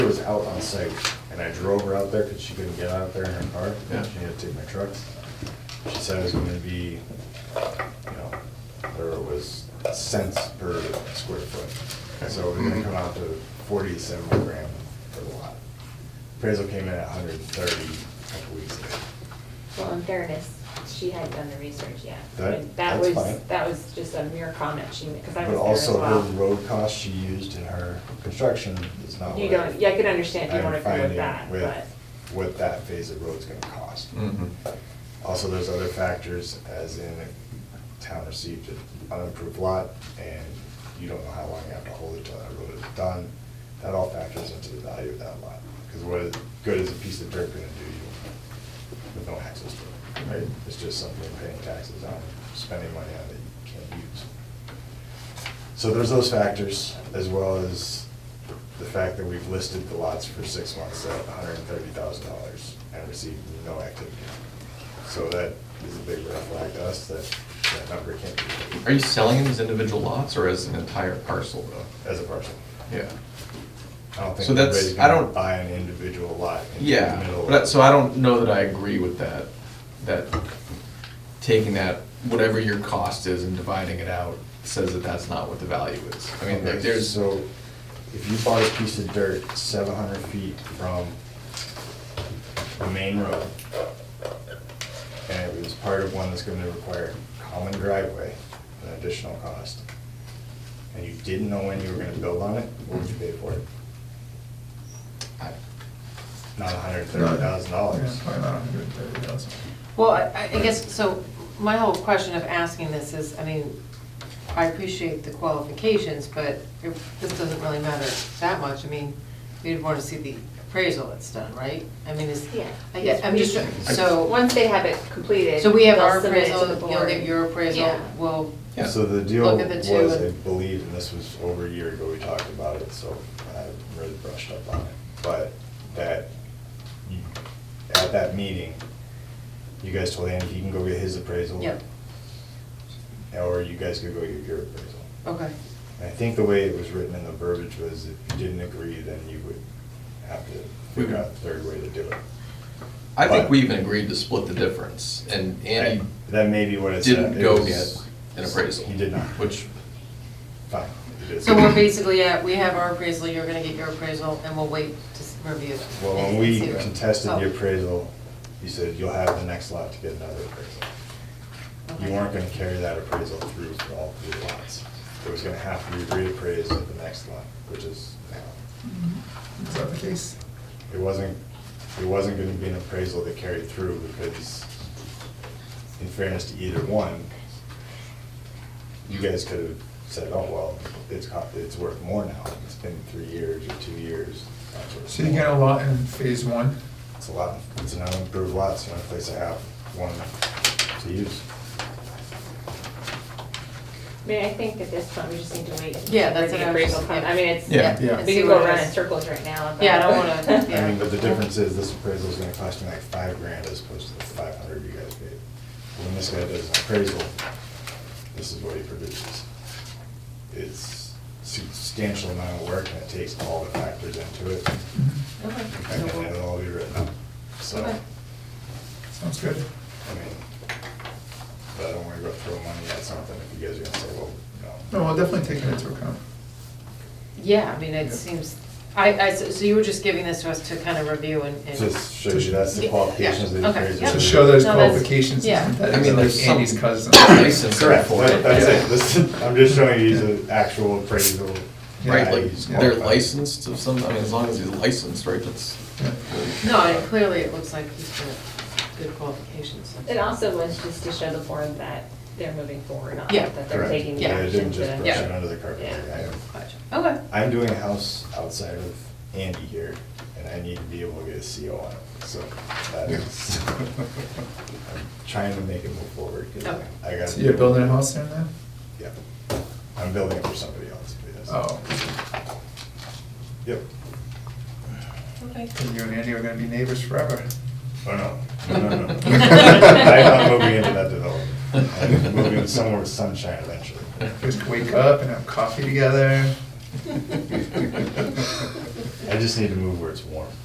was out on site, and I drove her out there because she couldn't get out there in her car. Yeah. She had to take my trucks. She said it was gonna be, you know, there was cents per square foot. So we're gonna come out to forty-seven grand per lot. Appraisal came in at hundred and thirty a couple weeks ago. Well, in fairness, she hadn't done the research yet. That- And that's was fine. That was just a mere comment she made, because I But was there as well. also her road cost she used in her construction is not what. You don't, yeah, I could understand if you I'm don't agree with finding that, with but. What that phase of road's gonna cost. Mhm. Also, there's other factors, as in the town received an unapproved lot, and you don't know how long you have to hold it till that road is done. That all factors into the value of that lot, because what good is a piece of dirt gonna do you with no access to it, right? It's just something you're paying taxes on, spending money on that you can't use. So there's those factors, as well as the fact that we've listed the lots for six months at hundred and thirty thousand dollars and received no activity. So that is a big red flag to us, that that number can't be Are you selling them as individual lots or as an entire parcel though? as a parcel. Yeah. I don't think So that's- anybody's I gonna don't- buy an individual lot in the Yeah, middle. of- but, so I don't know that I agree with that, that taking that, whatever your cost is and dividing it out says that that's not what the value is. I mean, Okay, like, there's, So if you bought a piece of dirt seven hundred feet from the main road, and it was part of one that's gonna require common driveway, an additional cost, and you didn't know when you were gonna build on it, what would you pay for it? I- Not hundred thirty thousand Yeah, dollars. Probably not a hundred and thirty thousand. Well, I, I guess, so my whole question of asking this is, I mean, I appreciate the qualifications, but it- this doesn't really matter that much. I mean, we'd want to see the appraisal that's done, right? I mean, is, Yeah. I guess, I'm just, so, Once they have it completed. so we have they'll our submit it to appraisal, the you'll board. get your appraisal, Yeah. we'll, Yeah. So the deal Look at the was, two I and- believe, and this was over a year ago, we talked about it, so I really brushed up on it. But that, you- at that meeting, you guys told Andy he can go get his appraisal. Yep. Or you guys could go get your appraisal. okay. And I think the way it was written in the verbiage was if you didn't agree, then you would have to We figure would- out a third way to do it. I think But- we even agreed to split the difference and Andy That may be what it said. didn't It go was- get an appraisal. He did not. Which, Fine. he did. So we're basically at, we have our appraisal, you're gonna get your appraisal, and we'll wait to s- review it. Well, when and we see what- contested the Oh, appraisal, you said you'll have the next lot to get another appraisal. okay. You weren't gonna carry that appraisal through for all three lots. It was gonna have to be reappraised at the next lot, which is now. Mm-hmm. Is that the case? It wasn't, it wasn't gonna be an appraisal that carried through because in fairness to either one, you guys could have said, oh, well, it's, co- it's worth more now. It's been three years or two years. that's worth So you more." get a lot in phase one, It's a lot, it's an unimproved lot, it's the only place I have one to use. I mean, I think at this point, we just need to wait. Yeah, that's for what the I was- appraisal. come. I mean, it's, Yeah. Yeah. we see can what go it around is. in circles right now. Yeah, I don't wanna- I mean, but the Yeah. difference is, this appraisal is gonna cost me like five grand as opposed to the five hundred you guys paid. When this guy does an appraisal, this is what he produces. It's substantial amount of work, and it takes all the factors into it, Okay, so and then it'll all be written up, so, I Okay. sounds good. mean, but I don't wanna go throw money at something if you guys are gonna say, well, no. No, we'll definitely take it into account. we'll- Yeah, I mean, it Yeah. seems, I, I, so so you were just giving this to us to kind of review and. and- Just shows you that's the qualifications of the Yeah, okay, appraisal. yeah. To show those No, that's- qualifications, yeah. isn't I mean, that there's like some Andy's cousin? license there Correct, for it. that- that's it, this, is- I'm just showing you the actual appraisal. Right, Yeah, like, he's they're qualified. licensed of some, I mean, as long as he's licensed, right, that's. Yeah. No, and clearly it looks like he's got good qualifications. so- It also was just to show the board that they're moving forward on, Yeah. it, that they're Correct. taking the Yeah, Yeah, I action didn't just to. brush it under the carpet, Yeah. I am, Gotcha. Okay, I'm doing a house outside of Andy here, and I need to be able to get a CO on it, so that is. I'm Trying to make it move forward, cause Okay. I- I got. So you're building a house there now? Yeah, I'm building it for somebody else, yes. Oh, Yep, okay. and you and Andy are gonna be neighbors forever. oh no, no, no, no. I'm not moving into that development, I'm moving somewhere with sunshine eventually. Just wake up and have coffee together. I just need to move where it's warm.